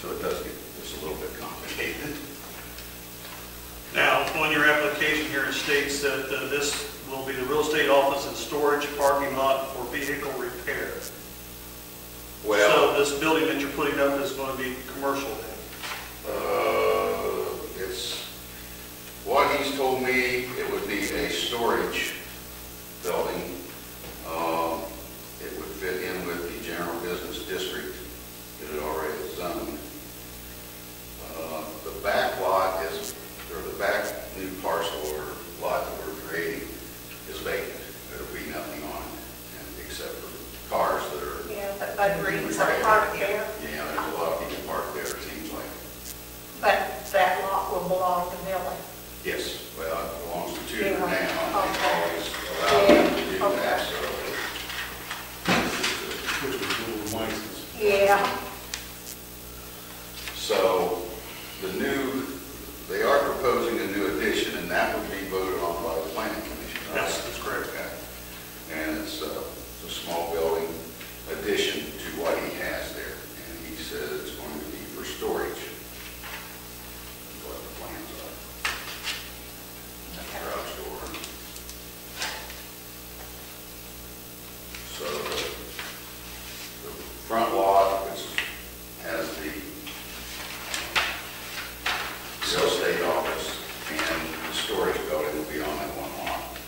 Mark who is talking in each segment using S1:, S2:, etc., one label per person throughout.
S1: So it does get just a little bit complicated.
S2: Now, on your application here, it states that uh, this will be the real estate office and storage parking lot for vehicle repair.
S1: Well,
S2: So this building that you're putting up is going to be commercial then?
S1: uh, it's, what he's told me, it would be a storage building. Um, It would fit in with the general business district, it had already zoned. Uh, The back lot is, or the back new parcel or lot that we're creating is vacant. There'll be nothing on it, and- except for cars that are
S3: Yeah, but Bud Green's are parked there,
S1: Yeah, there's a lot of people parked there, it seems like.
S3: but that lot will belong to Millie.
S1: Yes. Well, it belongs to Tudor now,
S3: Yeah.
S1: and they always allow them to do that, so.
S3: Yeah,
S1: So the new, they are proposing a new addition, and that would be voted on by the planning commission. right?
S2: Yes, that's correct.
S1: Okay. And it's uh, it's a small building addition to what he has there, and he says it's going to be for storage. What the plans are. And Garage door. So the front lot, which has the real estate office and the storage building will be on that one lot.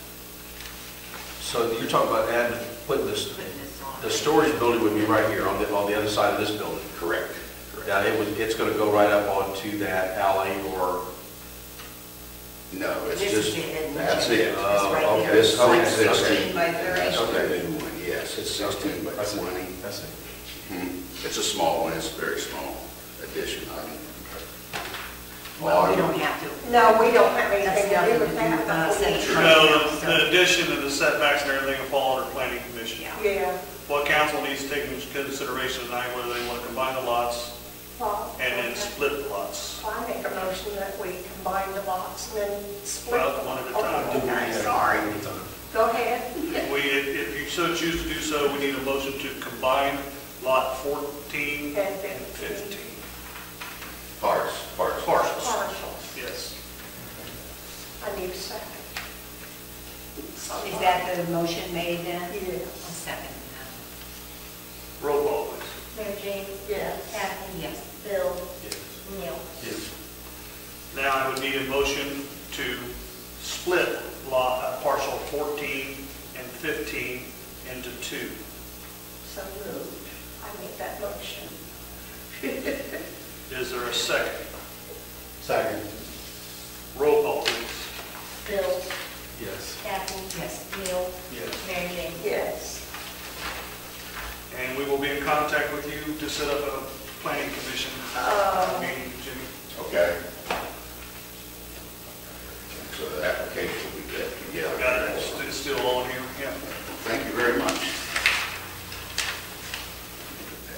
S4: So you're talking about adding, putting this, the storage building would be right here on the, on the other side of this building? Correct. Yeah, it would, it's gonna go right up onto that alley or,
S1: No, it's
S5: This is
S1: just,
S5: the end.
S1: that's it. Oh,
S4: Uh,
S5: It's right
S4: okay,
S5: here.
S4: this- okay,
S5: It's
S4: that's
S5: Sixteen by
S1: That's
S5: thirty.
S1: what they do one, yes, it's 16 by 20.
S4: that's it.
S1: Hmm. It's a small one, it's a very small addition, I mean.
S5: Well, we don't have to.
S3: no, we don't have
S5: That's
S3: anything to
S5: nothing
S3: do
S5: to do
S3: with
S5: with
S3: that.
S5: us.
S3: but we-
S5: That's right.
S2: No, the- the addition and the setbacks and everything will fall under planning commission.
S5: Yeah.
S3: Yeah,
S2: What council needs to take into consideration tonight, whether they want to combine the lots
S3: well,
S2: and then split the lots.
S3: I make a motion that we combine the lots and then split.
S2: Well, one at a time.
S3: them.
S5: I'm sorry.
S3: Go ahead.
S2: If we, if if you so choose to do so, we need a motion to combine lot 14 and
S3: And then
S2: 15.
S1: Parts, parts.
S2: Parcels,
S3: partials.
S2: yes.
S3: I need a second.
S5: Is that the motion made then?
S3: Yes.
S5: A second.
S2: Roll call, please.
S6: Mary Jane?
S3: Yes.
S6: Kathy?
S5: Yes.
S6: Bill? Neil?
S2: Now I would need a motion to split lot, uh, parcel 14 and 15 into two.
S3: So moved. I make that motion.
S2: Is there a second?
S4: Second.
S2: Roll call, please.
S6: Bill?
S4: Yes.
S6: Kathy?
S5: Yes.
S6: Neil?
S4: Yes.
S6: Mary Jane?
S3: Yes.
S2: And we will be in contact with you to set up a planning commission
S3: Uh.
S2: meeting, Jimmy.
S1: Okay. So the application will be get together.
S2: Got it, It's- it's still on here, yeah.
S1: Thank you very much.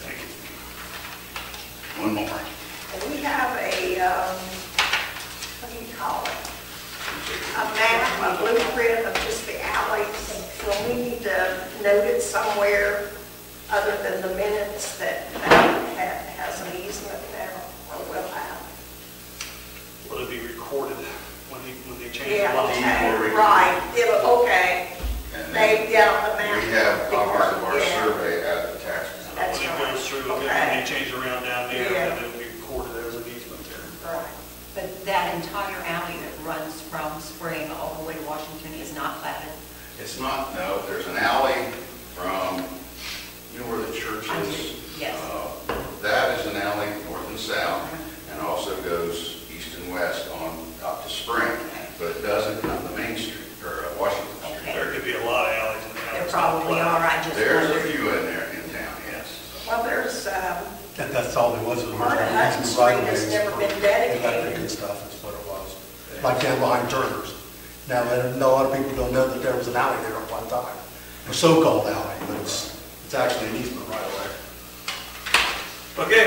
S2: Thank you.
S1: One more.
S3: And we have a, um, what do you call it? a map, a blueprint of just the alleys, so we need to note it somewhere other than the minutes that that ha- has an easement there, or will have.
S2: Will it be recorded when they, when they change the
S3: Yeah,
S2: lot?
S3: okay, right, yeah, okay,
S1: And
S3: they, yeah, the map.
S1: We have copies of our
S3: Yeah.
S1: survey at the tax. map.
S3: That's
S2: When it
S3: right.
S2: goes through,
S3: Okay.
S2: when they change around down there,
S3: Yeah.
S2: and it'll be recorded as an easement there.
S3: Right,
S5: But that entire alley that runs from Spring all the way to Washington is not platted?
S1: It's not, no, there's an alley from, you know where the church is?
S5: Yes.
S1: Uh, That is an alley north and south, and also goes east and west on, up to Spring, but it doesn't come to Main Street, or uh, Washington Street.
S5: Okay.
S2: There could be a lot of alleys in the house.
S5: They're probably all right, just
S1: There's a
S5: wondered.
S1: few in there in town, yes.
S3: well, there's, um,
S7: That, that's all there was, was
S3: Martin Hutton Street has never been dedicated.
S7: Electric and stuff, that's what it was. Like down behind Turner's. Now, I know a lot of people don't know that there was an alley there at one time, a so-called alley, but it's, it's actually an easement right away.
S2: Okay,